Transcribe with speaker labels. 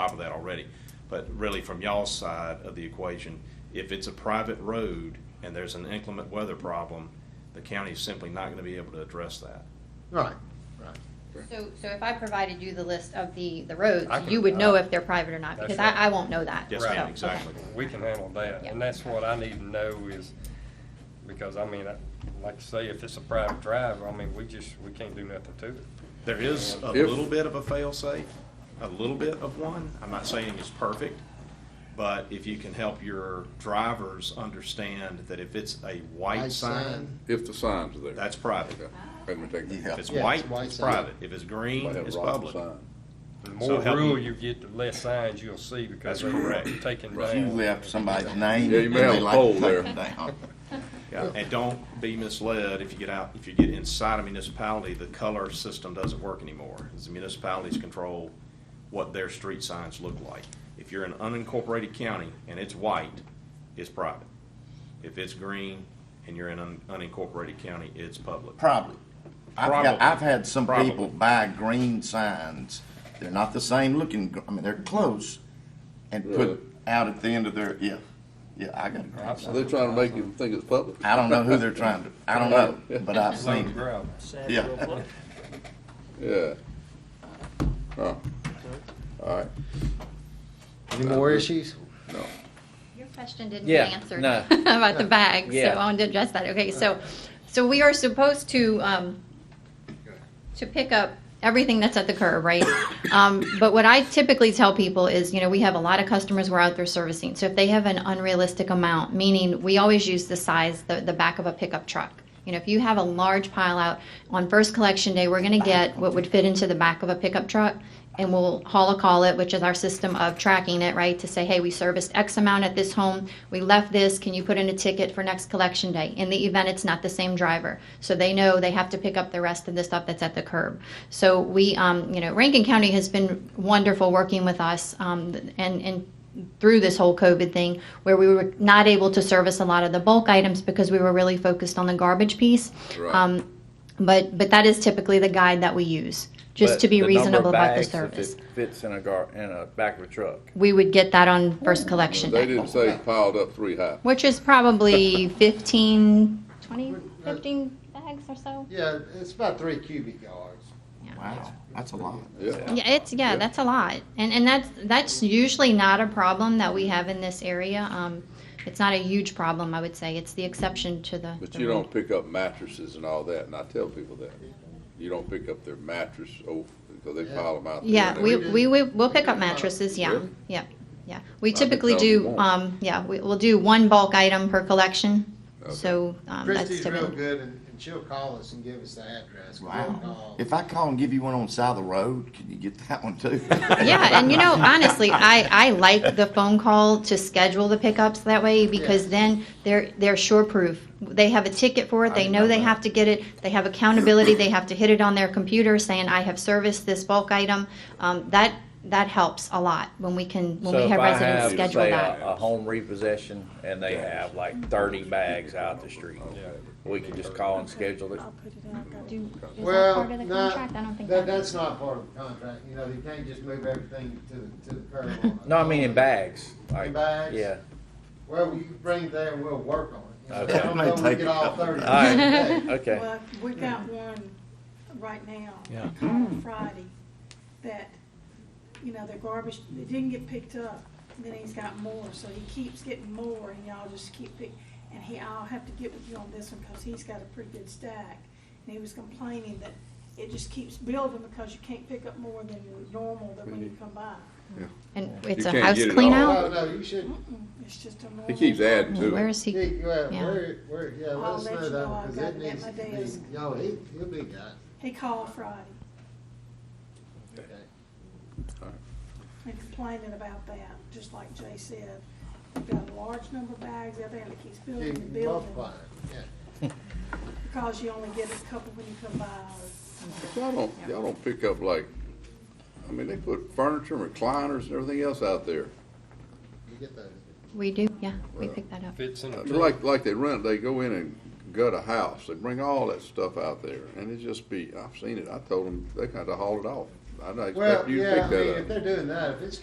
Speaker 1: top of that already. But really, from y'all's side of the equation, if it's a private road and there's an inclement weather problem, the county is simply not gonna be able to address that.
Speaker 2: Right, right.
Speaker 3: So, so if I provided you the list of the, the roads,
Speaker 2: I can-
Speaker 3: you would know
Speaker 2: I-
Speaker 3: if they're private or not,
Speaker 2: That's
Speaker 3: because I,
Speaker 2: right.
Speaker 3: I won't know that.
Speaker 1: Yes,
Speaker 3: so,
Speaker 1: ma'am,
Speaker 3: okay.
Speaker 1: exactly.
Speaker 2: We can handle that,
Speaker 3: Yeah.
Speaker 2: and that's what I need to know is, because I mean, I- like you say, if it's a private drive, I mean, we just, we can't do nothing to it.
Speaker 1: There is a
Speaker 4: If-
Speaker 1: little bit of a fail-safe, a little bit of one. I'm not saying it's perfect, but if you can help your drivers understand that if it's a white
Speaker 5: White
Speaker 6: uh,
Speaker 1: sign,
Speaker 5: sign.
Speaker 4: If the signs are there.
Speaker 1: that's private.
Speaker 4: Okay. Let me take
Speaker 1: If
Speaker 4: that.
Speaker 1: it's
Speaker 5: Yeah,
Speaker 1: white,
Speaker 5: it's white
Speaker 1: it's
Speaker 5: sign.
Speaker 1: private. If it's green,
Speaker 4: Might have
Speaker 1: it's
Speaker 4: a wrong
Speaker 1: public.
Speaker 4: sign.
Speaker 2: The
Speaker 1: So
Speaker 2: more
Speaker 1: help me-
Speaker 2: rural you get, the less signs you'll see because
Speaker 1: That's
Speaker 2: they're
Speaker 1: correct.
Speaker 2: taken
Speaker 4: Right.
Speaker 2: down.
Speaker 5: usually after somebody's name.
Speaker 4: Yeah, you may have
Speaker 5: and they
Speaker 4: a
Speaker 5: like to
Speaker 4: pole
Speaker 5: take
Speaker 4: there.
Speaker 5: them down.
Speaker 1: Yeah, and don't be misled, if you get out, if you get inside a municipality, the color system doesn't work anymore. It's The municipalities control what their street signs look like. If you're in an unincorporated county and it's white, it's private. If it's green and you're in an unincorporated county, it's public.
Speaker 5: Probably. I've
Speaker 1: Probably.
Speaker 5: got, I've had some
Speaker 1: Probably.
Speaker 5: people buy green signs. They're not the same looking, gr- I mean, they're close and
Speaker 4: Really?
Speaker 5: put out at the end of their, yeah, yeah, I got a green
Speaker 4: So
Speaker 5: sign.
Speaker 4: they're trying to make you think it's public.
Speaker 5: I don't know who they're trying to, I don't know, but I've
Speaker 2: Load
Speaker 5: seen
Speaker 2: of
Speaker 5: it.
Speaker 2: gravel.
Speaker 5: Yeah.
Speaker 4: Yeah. Huh. All right.
Speaker 6: Any more issues?
Speaker 4: No.
Speaker 3: Your question didn't
Speaker 6: Yeah,
Speaker 3: get answered
Speaker 6: no.
Speaker 3: about the bag, so I
Speaker 6: Yeah.
Speaker 3: wanted to address that. Okay, so, so we are supposed to, um, to pick up everything that's at the curb, right? Um, but what I typically tell people is, you know, we have a lot of customers we're out there servicing. So if they have an unrealistic amount, meaning we always use the size, the, the back of a pickup truck. You know, if you have a large pile out on first collection day, we're going to get what would fit into the back of a pickup truck and we'll haul a call it, which is our system of tracking it, right? To say, hey, we serviced X amount at this home, we left this, can you put in a ticket for next collection day? In the event it's not the same driver. So they know they have to pick up the rest of the stuff that's at the curb. So we, um, you know, Rankin County has been wonderful working with us um, and, and through this whole COVID thing, where we were not able to service a lot of the bulk items because we were really focused on the garbage piece.
Speaker 4: Right.
Speaker 3: Um, but but that is typically the guide that we use, just
Speaker 7: But
Speaker 3: to be
Speaker 7: the number of
Speaker 3: reasonable about the
Speaker 7: bags, if
Speaker 3: service.
Speaker 7: it Fits in a gar, in a back of a truck.
Speaker 3: We would get that on first collection
Speaker 4: They
Speaker 3: day,
Speaker 4: didn't say piled up three high.
Speaker 3: which is probably 15, 20, 15 bags or so.
Speaker 6: Yeah, it's about three cubic yards.
Speaker 5: Wow, that's a lot.
Speaker 4: Yeah.
Speaker 3: Yeah, it's yeah, that's a lot, and and that's that's usually not a problem that we have in this area. Um, it's not a huge problem, I would say. It's the exception to the.
Speaker 4: But
Speaker 3: the
Speaker 4: you
Speaker 3: rule.
Speaker 4: don't pick up mattresses and all that, and I tell people that. You don't pick up their mattress, oh, because they pile them out. there
Speaker 3: Yeah,
Speaker 4: and
Speaker 3: we,
Speaker 4: everything.
Speaker 3: we, we, we'll pick up mattresses, yeah,
Speaker 4: Really?
Speaker 3: yeah, yeah. We
Speaker 4: I've been
Speaker 3: typically
Speaker 4: told you
Speaker 3: do,
Speaker 4: won't.
Speaker 3: um, yeah, we, we'll do one bulk item per collection,
Speaker 4: Okay.
Speaker 3: so, um, that's
Speaker 6: Christie's real
Speaker 3: typically.
Speaker 6: good and, and she'll call us and give us the address. 'cause we'll
Speaker 5: Wow.
Speaker 6: call.
Speaker 5: If I call and give you one on the side of the road, can you get that one too?
Speaker 3: Yeah, and you know, honestly, I, I like the phone call to schedule the pickups that way, because then they're, they're sure proof. They have a ticket for it,
Speaker 5: I
Speaker 3: they
Speaker 5: didn't
Speaker 3: know
Speaker 5: know
Speaker 3: they
Speaker 5: that.
Speaker 3: have to get it, they have accountability, they have to hit it on their computer saying, I have serviced this bulk item. Um, that, that helps a lot when we can, when
Speaker 7: So
Speaker 3: we
Speaker 7: if
Speaker 3: have
Speaker 7: I
Speaker 3: residents
Speaker 7: have,
Speaker 3: schedule
Speaker 7: say, uh, a-
Speaker 3: that.
Speaker 7: A home repossession and they have like thirty bags out the street. We can just call and schedule it.
Speaker 3: Do- Is that
Speaker 6: Well,
Speaker 3: part of the
Speaker 6: not,
Speaker 3: contract? I don't think
Speaker 6: that,
Speaker 3: that
Speaker 6: that's
Speaker 3: is.
Speaker 6: not part of the contract, you know, you can't just move everything to, the- to the curb. on it.
Speaker 7: No, I mean in bags. like-
Speaker 6: bags?
Speaker 7: Yeah.
Speaker 6: Well, you can bring it there and we'll work on it. You know,
Speaker 7: Okay.
Speaker 6: I don't know if we
Speaker 5: Take
Speaker 6: get
Speaker 5: it
Speaker 6: all
Speaker 5: out.
Speaker 6: thirty.
Speaker 7: All right.
Speaker 6: today.
Speaker 7: Okay.
Speaker 8: Well, we got one right now, on Friday, that, you know, their garbage, it didn't get picked up, and then he's got more, so he keeps getting more, and y'all just keep pick, and he, I'll have to get with you on this one, because he's got a pretty good stack, and he was complaining that it just keeps building because you can't pick up more than normal that when you come by.
Speaker 3: And it's
Speaker 4: You
Speaker 3: a
Speaker 4: can't
Speaker 3: house
Speaker 4: get it
Speaker 3: clean
Speaker 4: all.
Speaker 3: out?
Speaker 6: No, no, you should,
Speaker 8: Mm-mm, It's just a normal.
Speaker 4: He keeps adding to it.
Speaker 3: Where is he?
Speaker 6: he, well,
Speaker 3: Yeah.
Speaker 6: where, where, yeah, let
Speaker 8: I'll
Speaker 6: us
Speaker 8: let
Speaker 6: know
Speaker 8: you
Speaker 6: that,
Speaker 8: know.
Speaker 6: one,
Speaker 8: I've
Speaker 6: cause
Speaker 8: got
Speaker 6: it
Speaker 8: it at
Speaker 6: needs
Speaker 8: my
Speaker 6: to
Speaker 8: desk.
Speaker 6: be, yo, he, he'll be got
Speaker 8: He called Friday
Speaker 6: it, okay.
Speaker 8: and complaining about that, just like Jay said. We've got a large number of bags out there that keeps building
Speaker 6: You
Speaker 8: and
Speaker 6: can
Speaker 8: building
Speaker 6: multiply it, yeah.
Speaker 8: because you only get a couple when you come by.
Speaker 4: But Y'all don't, y'all don't pick up like, I mean, they put furniture, recliners and everything else out there.
Speaker 6: You get those.
Speaker 3: We do, yeah, we pick that up.
Speaker 2: Fits in
Speaker 4: I
Speaker 2: a
Speaker 4: mean, Like, like they rent, they go in and gut a house, they bring all that stuff out there, and it just be, I've seen it, I told them, they kinda haul it off. I didn't
Speaker 6: Well,
Speaker 4: expect you to
Speaker 6: yeah, I
Speaker 4: pick
Speaker 6: mean,
Speaker 4: that up.
Speaker 6: if they're doing that, if it's